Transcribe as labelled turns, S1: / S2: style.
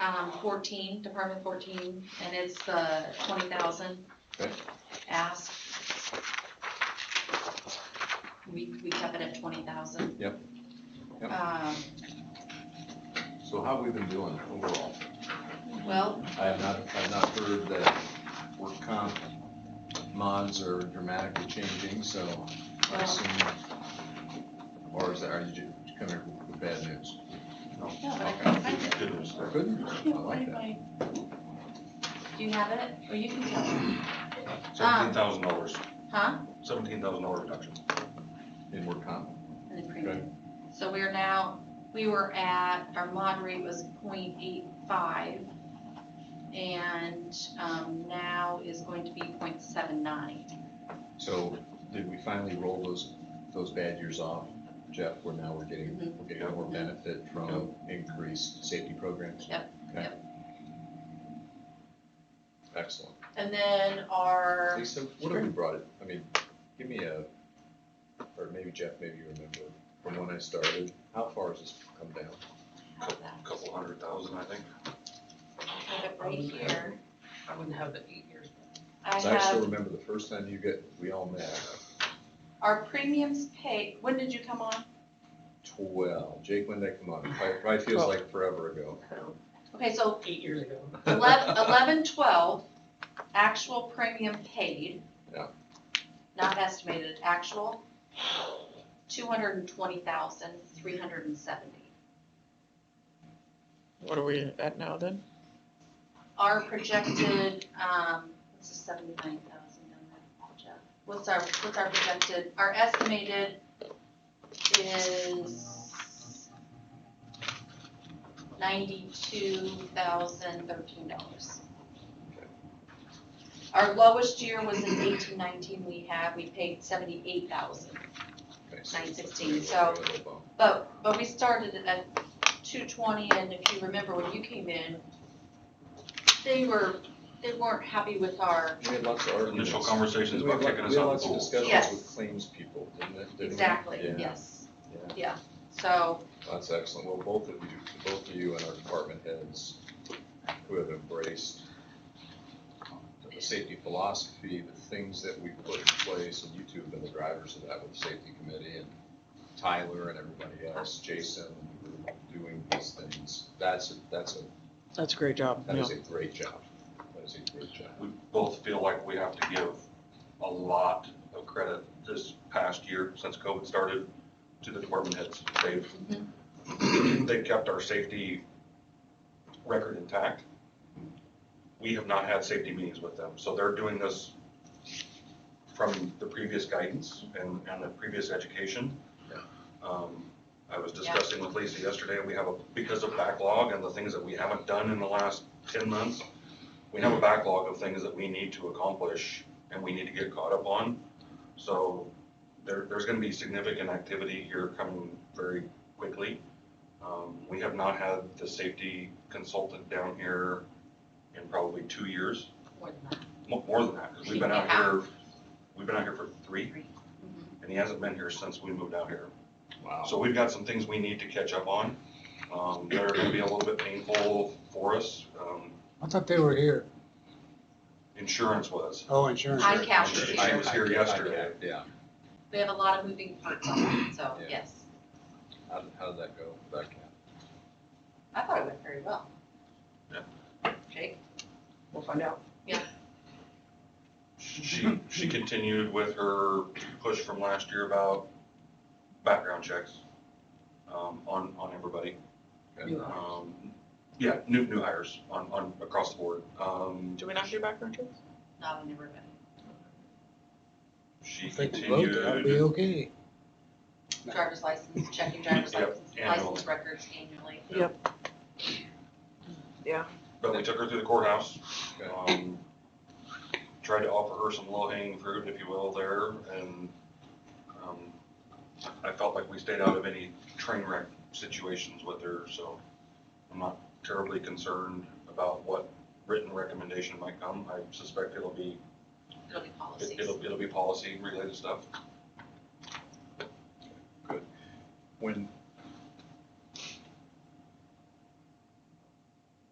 S1: um, fourteen, Department fourteen, and it's the twenty thousand
S2: Okay.
S1: ask. We, we kept it at twenty thousand.
S2: Yep. Yep.
S1: Um,
S2: So how have we been doing overall?
S1: well,
S2: I have not, I have not heard that work comp mods are dramatically changing, so I
S1: Well-
S2: assume, or is that, are you ju- you come here with bad news?
S1: no, but I
S2: Okay.
S1: can't find it.
S2: Good news, I like that.
S1: Do you have it? Or Oh, you can tell me,
S3: Seventeen thousand dollars,
S1: Um, huh?
S3: seventeen thousand dollar reduction.
S2: In work comp,
S1: And the premium. So we are now, we were at, our mod rate was 0.85, And, um, now is going to be 0.79.
S2: so did we finally roll those, those bad years off? Jeff, where now we're getting,
S1: Mhm.
S2: we're getting more benefit from increased safety programs?
S1: Yep,
S2: Okay.
S1: yep.
S2: Excellent.
S1: And then our,
S2: Lisa, what have we brought it, I mean, give me a, or maybe Jeff, maybe you remember, from when I started, how far has this come down?
S3: Couple hundred thousand, I think.
S1: I have it right here.
S4: I wouldn't have the eight years.
S1: I
S2: 'Cause I still
S1: have,
S2: remember the first time you get, we all met,
S1: our premiums paid, when did you come on?
S2: twelve, Jake, when did I come on? Probably probably feels
S4: Twelve.
S2: like forever ago.
S1: Okay, so
S4: Eight years ago.
S1: eleven, eleven, twelve, actual premium paid.
S2: Yeah.
S1: Not estimated, actual, two hundred and twenty thousand, three hundred and seventy.
S5: What are we at now then?
S1: Our projected, um, what's the seventy-nine thousand down there, Jeff? What's our, what's our projected, our estimated is ninety-two thousand thirteen dollars. Our lowest year was in eighteen nineteen we had, we paid seventy-eight thousand,
S2: Okay, so
S1: nine
S2: it's
S1: sixteen,
S2: a
S1: so
S2: little bit of a bump.
S1: but, but we started it at two twenty, and if you remember when you came in, they were, they weren't happy with our,
S2: We had lots of arguments.
S3: Initial conversations about
S2: We had
S3: kicking
S2: lo-
S3: us
S2: We had
S3: out of the pool.
S2: lots of discussions
S1: Yes.
S2: with claims people, didn't it? Didn't we?
S1: exactly,
S2: Yeah.
S1: yes,
S2: Yeah.
S1: yeah. So,
S2: That's excellent. Well, both of you, both of you and our department heads who have embraced uh, the safety philosophy, the things that we put in place, and you two have been the drivers of that with the safety committee and Tyler and everybody else, Jason, doing these things. That's, a- that's a,
S5: That's a great job.
S2: that
S5: yeah.
S2: is a great job. That is a great job.
S3: We both feel like we have to give a lot of credit this past year since COVID started to the department heads.
S1: Mm-hmm.
S3: They've, they kept our safety record intact. We have not had safety meetings with them, so they're doing this from the previous guidance and, and the previous education.
S2: Yeah.
S3: Um, I was
S1: Yeah.
S3: discussing with Lisa yesterday, we have a, because of backlog and the things that we haven't done in the last ten months, we have a backlog of things that we need to accomplish and we need to get caught up on. So there, there's gonna be significant activity here coming very quickly. Um, we have not had the safety consultant down here in probably two years,
S1: more than that.
S3: mo- more than that, because we've been out here, we've been out here for three,
S1: Mhm.
S3: and he hasn't been here since we moved out here.
S2: Wow.
S3: So we've got some things we need to catch up on, um, that are gonna be a little bit painful for us, um,
S6: I thought they were here.
S3: insurance was.
S6: Oh, insurance.
S1: I count.
S3: She she was here yesterday.
S2: Yeah.
S1: We have a lot of moving parts on that, so,
S2: Yeah.
S1: yes,
S2: How, did- how did that go? That count?
S1: I thought it went very well. Jake?
S4: We'll find out.
S3: She, she continued with her push from last year about background checks, um, on, on everybody.
S2: Okay.
S3: Um, yeah, new, new hires on, on, across the board. Um,
S5: Do we not do background checks?
S1: Not on everybody.
S3: she
S6: If they can vote, that'll be
S3: continued,
S6: okay. No.
S1: Driver's license, checking driver's
S3: Yep,
S1: license,
S3: annually.
S1: license records annually.
S3: but we took her through the courthouse.
S2: Okay.
S3: Um, tried to offer her some low hanging fruit, if you will, there and, um, I felt like we stayed out of any train wreck situations with her, so I'm not terribly concerned about what written recommendation might come. I suspect it'll be
S1: It'll be policies.
S3: It- It'll, it'll be policy related stuff.
S2: When,